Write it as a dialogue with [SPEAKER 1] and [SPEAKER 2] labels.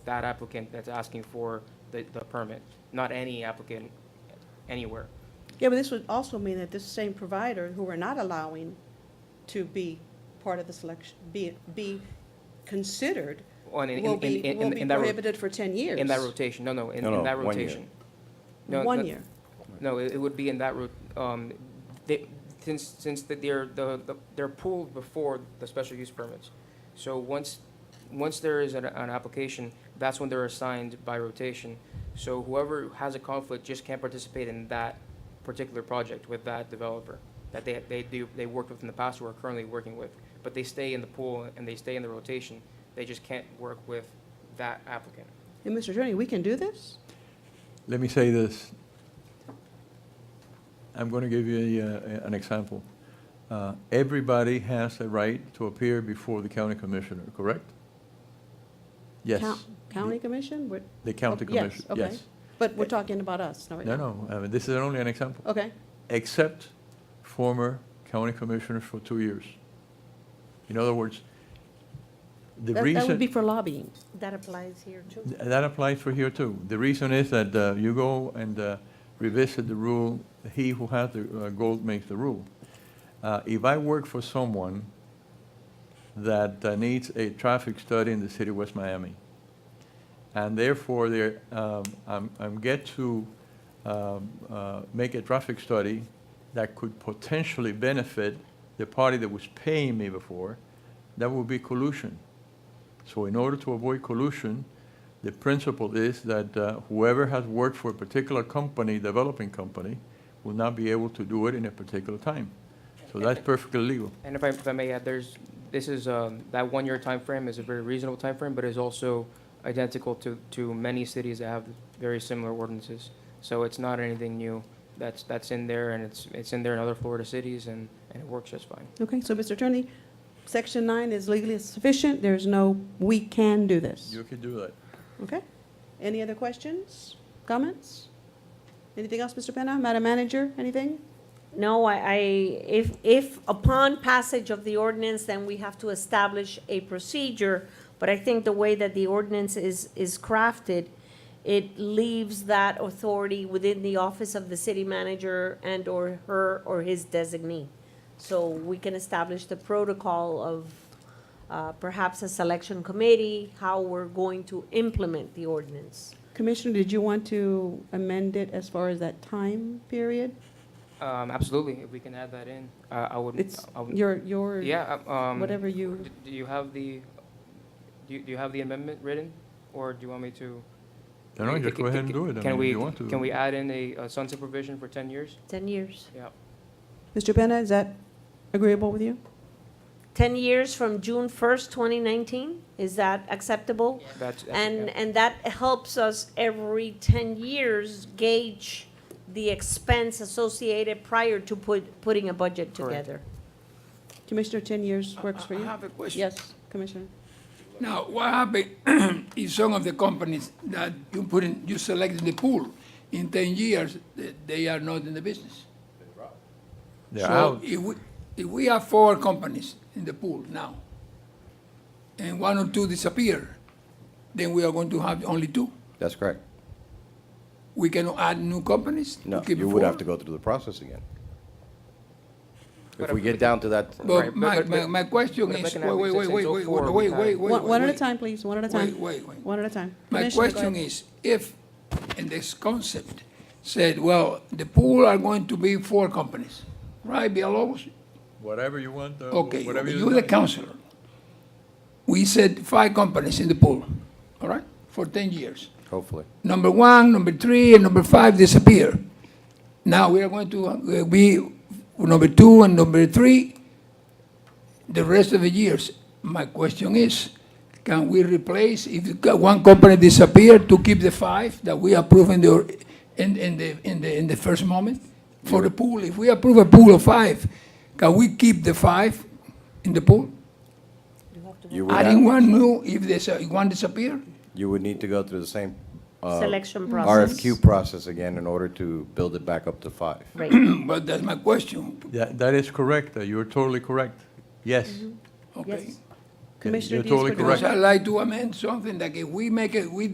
[SPEAKER 1] that applicant that's asking for the, the permit, not any applicant anywhere.
[SPEAKER 2] Yeah, but this would also mean that this same provider who we're not allowing to be part of the selection, be, be considered,
[SPEAKER 1] On, in, in,
[SPEAKER 2] will
[SPEAKER 1] in,
[SPEAKER 2] be,
[SPEAKER 1] in-
[SPEAKER 2] will
[SPEAKER 1] in
[SPEAKER 2] be
[SPEAKER 1] that, ro-
[SPEAKER 2] prohibited for ten years.
[SPEAKER 1] in that rotation, no, no, in,
[SPEAKER 3] No,
[SPEAKER 1] in
[SPEAKER 3] no,
[SPEAKER 1] that
[SPEAKER 3] one year.
[SPEAKER 1] rotation. No,
[SPEAKER 2] One
[SPEAKER 1] that-
[SPEAKER 2] year.
[SPEAKER 1] No, it, it would be in that route, um, they, since, since that they're, the, the- they're pulled before the special use permits. So once, once there is an, an application, that's when they're assigned by rotation. So whoever has a conflict just can't participate in that particular project with that developer that they, they do, they worked with in the past or are currently working with. But they stay in the pool and they stay in the rotation, they just can't work with that applicant.
[SPEAKER 2] And Mr. Attorney, we can do this?
[SPEAKER 3] Let me say this. I'm going to give you a, uh, an example. Uh, Everybody has a right to appear before the county commissioner, correct? Yes.
[SPEAKER 2] Coun- County
[SPEAKER 1] Mm-hmm.
[SPEAKER 2] Commission, We're-
[SPEAKER 3] The county
[SPEAKER 2] Oh, yes,
[SPEAKER 3] commissioner,
[SPEAKER 2] okay.
[SPEAKER 3] yes.
[SPEAKER 2] but we're talking about us, no?
[SPEAKER 3] No, no, I mean, this is only an example.
[SPEAKER 2] Okay,
[SPEAKER 3] Except former county commissioners for two years. In other words, the
[SPEAKER 2] that,
[SPEAKER 3] reason.
[SPEAKER 2] that would be for lobbying.
[SPEAKER 4] That applies here too.
[SPEAKER 3] Th- That applies for here too. The reason is that uh, you go and uh, revisit the rule, he who has the uh, gold makes the rule. Uh, If I work for someone that uh, needs a traffic study in the city of West Miami, and therefore there, um, I'm, I'm get to um, uh, make a traffic study that could potentially benefit the party that was paying me before, that would be collusion. So in order to avoid collusion, the principle is that uh, whoever has worked for a particular company, developing company, will not be able to do it in a particular time. So that's perfectly legal.
[SPEAKER 1] And if I, if I may add, there's, this is, um, that one-year time frame is a very reasonable time frame, but is also identical to, to many cities that have very similar ordinances. So it's not anything new that's, that's in there, and it's, it's in there in other Florida cities, and, and it works just fine.
[SPEAKER 2] Okay, so Mr. Attorney, section nine is legally sufficient, there's no, we can do this.
[SPEAKER 3] You can do that.
[SPEAKER 2] Okay. Any other questions, comments? Anything else, Mr. Penna? Madam Manager, anything?
[SPEAKER 4] No, I, I, if, if upon passage of the ordinance, then we have to establish a procedure. But I think the way that the ordinance is, is crafted, it leaves that authority within the office of the city manager and/or her or his designee. So we can establish the protocol of uh, perhaps a selection committee, how we're going to implement the ordinance.
[SPEAKER 2] Commissioner, did you want to amend it as far as that time period?
[SPEAKER 1] Um, absolutely, if we can add that in, uh, I would.
[SPEAKER 2] It's
[SPEAKER 1] I would-
[SPEAKER 2] your, your,
[SPEAKER 1] Yeah, um.
[SPEAKER 2] whatever you,
[SPEAKER 1] d- Do you have the, do you, do you have the amendment written, or do you want me to?
[SPEAKER 3] No, no, just go ahead and do it. I
[SPEAKER 1] Can
[SPEAKER 3] mean, if
[SPEAKER 1] we-
[SPEAKER 3] you want to.
[SPEAKER 1] Can we add in a uh, sunset provision for ten years?
[SPEAKER 4] Ten years.
[SPEAKER 1] Yeah.
[SPEAKER 2] Mr. Penna, is that agreeable with you?
[SPEAKER 4] 10 years from June 1st, 2019? Is that acceptable?
[SPEAKER 1] That's. that's-
[SPEAKER 4] And,
[SPEAKER 1] yeah.
[SPEAKER 4] and that helps us every 10 years gauge the expense associated prior to put, putting a budget
[SPEAKER 1] Correct.
[SPEAKER 4] together.
[SPEAKER 2] Commissioner, 10 years works for
[SPEAKER 5] I
[SPEAKER 2] you?
[SPEAKER 5] have a question.
[SPEAKER 2] Yes, Commissioner.
[SPEAKER 5] Now, what happened if some of the companies that you put in, you select in the pool, in ten years, th- they are not in the business?
[SPEAKER 3] They're
[SPEAKER 5] so
[SPEAKER 3] out.
[SPEAKER 5] If we, if we have four companies in the pool now, and one or two disappear, then we are going to have only two.
[SPEAKER 6] That's correct.
[SPEAKER 5] We cannot add new companies. to
[SPEAKER 6] No,
[SPEAKER 5] keep
[SPEAKER 6] you would
[SPEAKER 5] four?
[SPEAKER 6] have to go through the process again.
[SPEAKER 1] But
[SPEAKER 6] If we
[SPEAKER 1] if-
[SPEAKER 6] get down to that,
[SPEAKER 1] Right,
[SPEAKER 5] But
[SPEAKER 1] but-
[SPEAKER 5] my,
[SPEAKER 1] but-
[SPEAKER 5] my,
[SPEAKER 1] but-
[SPEAKER 5] my question
[SPEAKER 1] but
[SPEAKER 5] is,
[SPEAKER 1] back in
[SPEAKER 5] wait, wait, wait,
[SPEAKER 1] Athens,
[SPEAKER 5] wait,
[SPEAKER 1] until
[SPEAKER 5] wait,
[SPEAKER 1] oh four,
[SPEAKER 5] wait,
[SPEAKER 1] we
[SPEAKER 5] wait,
[SPEAKER 1] had-
[SPEAKER 5] wait, wait.
[SPEAKER 2] One one at a
[SPEAKER 5] wait.
[SPEAKER 2] time, please, one at a
[SPEAKER 5] Wait,
[SPEAKER 2] time.
[SPEAKER 5] wait, wait.
[SPEAKER 2] One at a time.
[SPEAKER 5] My
[SPEAKER 2] Commissioner, go
[SPEAKER 5] question
[SPEAKER 2] ahead.
[SPEAKER 5] is, if, in this concept, said, well, the pool are going to be four companies, right, Villalobos?
[SPEAKER 3] Whatever you want, uh,
[SPEAKER 5] Okay,
[SPEAKER 3] whatever you.
[SPEAKER 5] you're the
[SPEAKER 3] decide.
[SPEAKER 5] counselor. We said five companies in the pool, all right, for ten years.
[SPEAKER 6] hopefully.
[SPEAKER 5] Number one, number three, and number five disappear. Now we are going to uh, be number two and number three the rest of the years. My question is, can we replace, if one company disappeared, to keep the five that we approve in the, in, in the, in the, in the first moment? For the pool, if we approve a pool of five, can we keep the five in the pool?
[SPEAKER 6] You would,
[SPEAKER 5] Adding
[SPEAKER 6] have-
[SPEAKER 5] one new if there's, a- one disappear?
[SPEAKER 6] you would need to go through the same uh,
[SPEAKER 4] Selection process.
[SPEAKER 6] RFQ process again in order to build it back up to five.
[SPEAKER 4] Right.
[SPEAKER 5] But that's my question,
[SPEAKER 3] That, that is correct. Uh, You're totally correct. Yes.
[SPEAKER 5] okay?
[SPEAKER 4] Yes.
[SPEAKER 2] Commissioner
[SPEAKER 3] you're
[SPEAKER 2] Diaz-Padrón.
[SPEAKER 3] totally correct.
[SPEAKER 5] Because I'd like to amend something that if we make it, we